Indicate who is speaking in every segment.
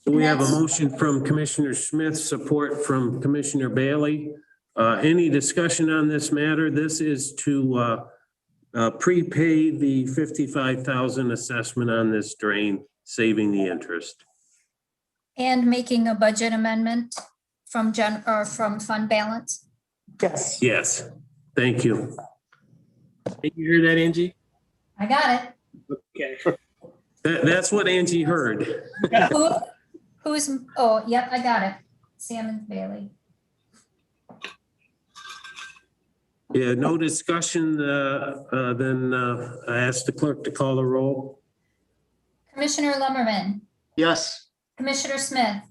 Speaker 1: So we have a motion from Commissioner Smith, support from Commissioner Bailey. Uh, any discussion on this matter? This is to, uh, uh, prepay the fifty-five thousand assessment on this drain, saving the interest.
Speaker 2: And making a budget amendment from gen, or from fund balance?
Speaker 3: Yes.
Speaker 1: Yes, thank you.
Speaker 4: Did you hear that, Angie?
Speaker 2: I got
Speaker 4: Okay.
Speaker 1: That, that's what Angie heard.
Speaker 2: it. Who, who's, oh, yep, I got it. Sam and Bailey.
Speaker 1: Yeah, no discussion, uh, uh, then, uh, I asked the clerk to call the roll.
Speaker 2: Commissioner Lumberman,
Speaker 5: Yes.
Speaker 2: Commissioner Smith,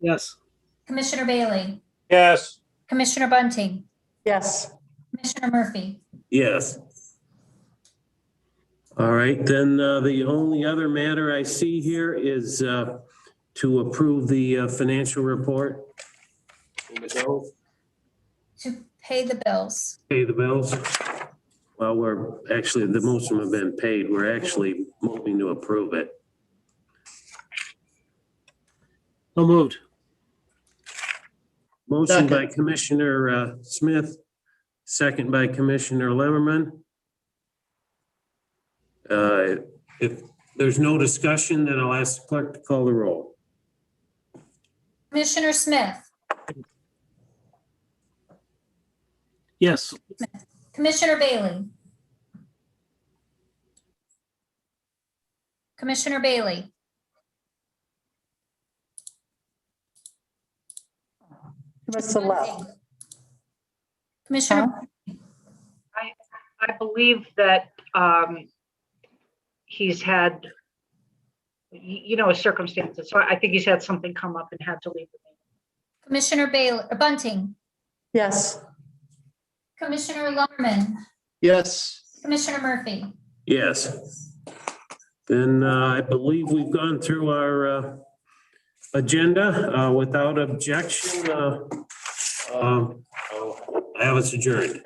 Speaker 4: Yes.
Speaker 2: Commissioner Bailey,
Speaker 5: Yes.
Speaker 2: Commissioner Bunting,
Speaker 3: Yes.
Speaker 2: Commissioner Murphy.
Speaker 1: Yes. All right, then uh, the only other matter I see here is uh, to approve the uh, financial report.
Speaker 2: To pay the bills.
Speaker 1: Pay the bills. Well, we're actually, the most of them have been paid. We're actually moving to approve it.
Speaker 4: So moved.
Speaker 1: Motion by Commissioner uh, Smith, second by Commissioner Lemmerman. Uh, If there's no discussion, then I'll ask the clerk to call the roll.
Speaker 2: Commissioner Smith,
Speaker 4: Yes.
Speaker 2: Commissioner Bailey. Commissioner Bailey,
Speaker 3: What's the left?
Speaker 2: Commissioner
Speaker 6: I believe that um, he's had, y- you know, his circumstances, so I think he's had something come up and had to leave. the meeting.
Speaker 2: Commissioner Bailey, Bunting,
Speaker 3: Yes.
Speaker 2: Commissioner Lumberman,
Speaker 5: Yes.
Speaker 2: Commissioner Murphy.
Speaker 1: Yes. Then uh, I believe we've gone through our uh, agenda uh, without objection. uh, um, I'll Have us adjourned.